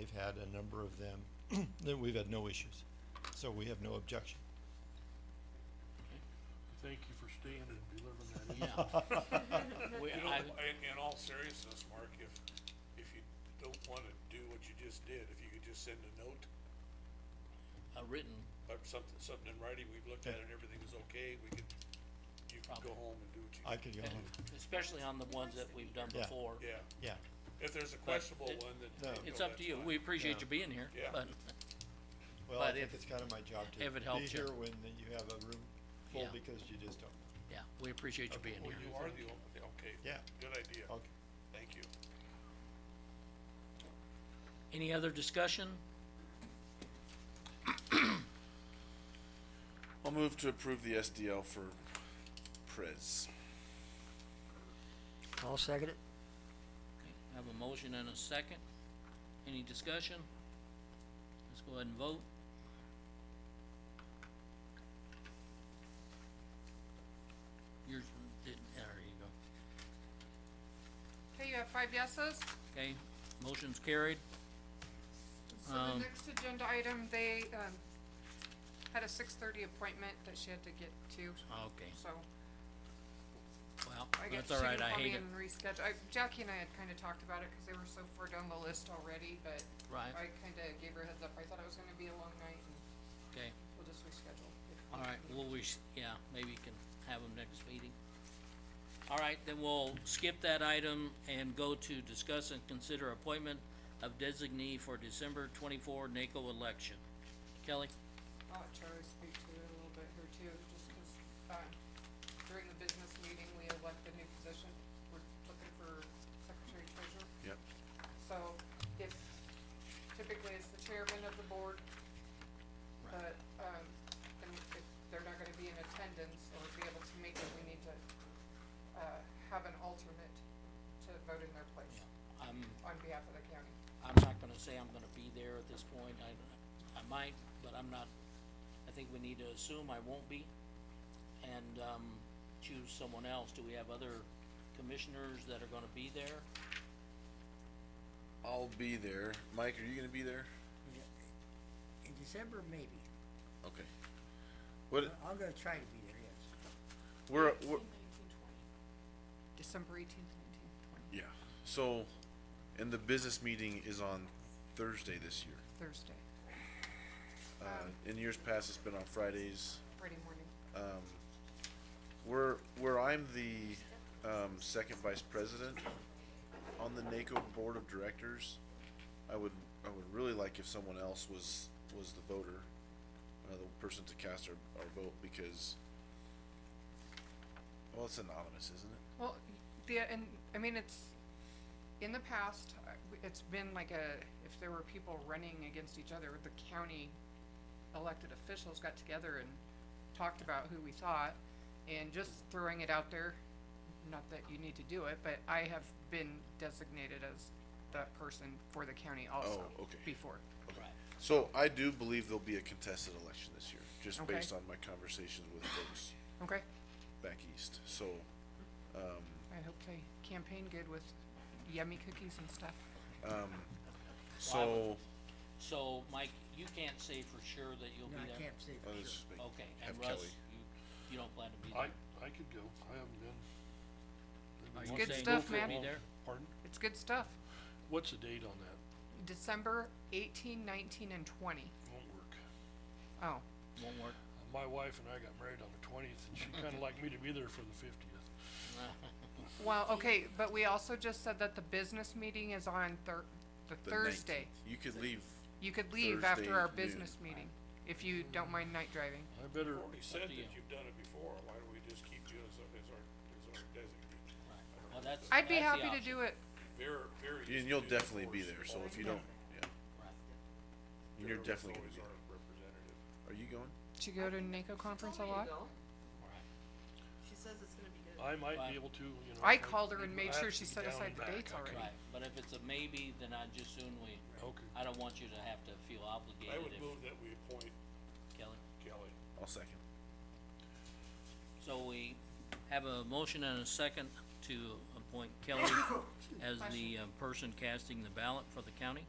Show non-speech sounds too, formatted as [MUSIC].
we've had a number of them, [CLEARS THROAT] that we've had no issues. So we have no objection. Thank you for staying and delivering that. in. Yeah. [LAUGHS] We, You know, I, in, in all seriousness, Mark, if, if you don't wanna do what you just did, if you could just send a note a written, or something, something in writing, we've looked at it, everything is okay, we could, you could Probably. go home and do what you. I could go on, especially on the ones that we've done Yeah. before. Yeah, yeah, if there's a questionable it- one that. No. you It's know, up to that's you. fine. We appreciate Yeah. you being here, Yeah. but, well, I But think if- it's kind of my job to if be it helps you. here when you have a room full Yeah. because you just don't, yeah, we appreciate you being Well, here. you are the, o- okay. Yeah. Good idea. okay. Thank you. Any other discussion? I'll move to approve the SDL for Priz. I'll second it. Okay, I Have a motion and a second. Any discussion? Let's go ahead and vote. Yours didn't, there you go. Okay, you have five yeses. Okay, motion's carried. So Um, the next agenda item, they, um, had a six thirty appointment that she had to get to, Okay, so well, I guess that's she all can right. I call me hate it. and reschedule. I- Jackie and I had kinda talked about it, cause they were so far down the list already, but Right. I kinda gave her a heads up. I thought it was gonna be a long night and Okay, we'll just reschedule. if- all right, well, we, s- yeah, maybe you can have them next meeting. All right, then we'll skip that item and go to discuss and consider appointment of designee for December twenty-four NACO election. Kelly? I'll let Charlie speak to it a little bit here too, just 'cause, um, during the business meeting, we elected a new position. We're looking for secretary treasurer. Yep. So if, typically it's the chairman of the board, but, um, and if they're not gonna be in attendance or be able to make it, we need to, uh, have an alternate to vote in their place I'm, on behalf of the county. I'm not gonna say I'm gonna be there at this point, I, I might, but I'm not, I think we need to assume I won't be. And, um, choose someone else, do we have other commissioners that are gonna be there? I'll be there. Mike, are you gonna be there? In December, maybe. Okay. What, I'm gonna try to be there, yes. we're, we're, December eighteenth, nineteenth, twentieth, yeah, so, and the business meeting is on Thursday this year. Thursday, Uh, in years past, it's been on Fridays. Friday morning. Where, where I'm the, um, second vice president on the NACO Board of Directors, I would, I would really like if someone else was, was the voter, uh, the person to cast our, our vote, because, well, it's anonymous, isn't it? Well, the, and, I mean, it's, in the past, I- it's been like a, if there were people running against each other, the county elected officials got together and talked about who we thought, and just throwing it out there, not that you need to do it, but I have been designated as that person for the county also Oh, okay. before. Right. So I do believe there'll be a contested election this year, just Okay. based on my conversations with folks Okay, back east, so, I hope they campaign good with yummy cookies and stuff. so, So, Mike, you can't say for sure that you'll No, be I there? can't say I'll for just sure. make- Okay, and have Russ, Kelly. you, you don't plan to be I, there? I could go, I haven't been. I've been Are you wanting Good saying stuff, you will man. Be there? Pardon? It's good stuff. What's the date on that? December eighteen, nineteen, and twenty. Won't work. Oh, Won't work. My wife and I got married on the twentieth, and she kinda liked me to be there for the fiftieth. well, okay, but we also just said that the business meeting is on Thur- the the Thursday. 19th. You could leave, You could leave after Thursday our noon. business meeting, if you don't mind night driving. I better, You already said to that you. you've done it before, why don't we just keep you as, our- as our, as our designate? Well, that's, I'd be that's the happy to option. do it. Vera, Vera. you- used and to you'll do that definitely for be us. there, so if you don't, yeah, Right. and you're Vera was definitely gonna be always there. our representative. Are you going? Did you go to NACO conference a told me to lot? go. Right. She says it's gonna be good. I might Fine. be able to, you know. I if called her and I made have sure to she be set down aside and the back, dates I can- already. Right, but if it's a maybe, then I just soon we, Okay. I don't want you to have to feel I obligated would if, move that we appoint Kelly. Kelly. I'll second. So we have a motion and a second [COUGHS] to appoint Kelly as the uh, person casting the ballot for the county.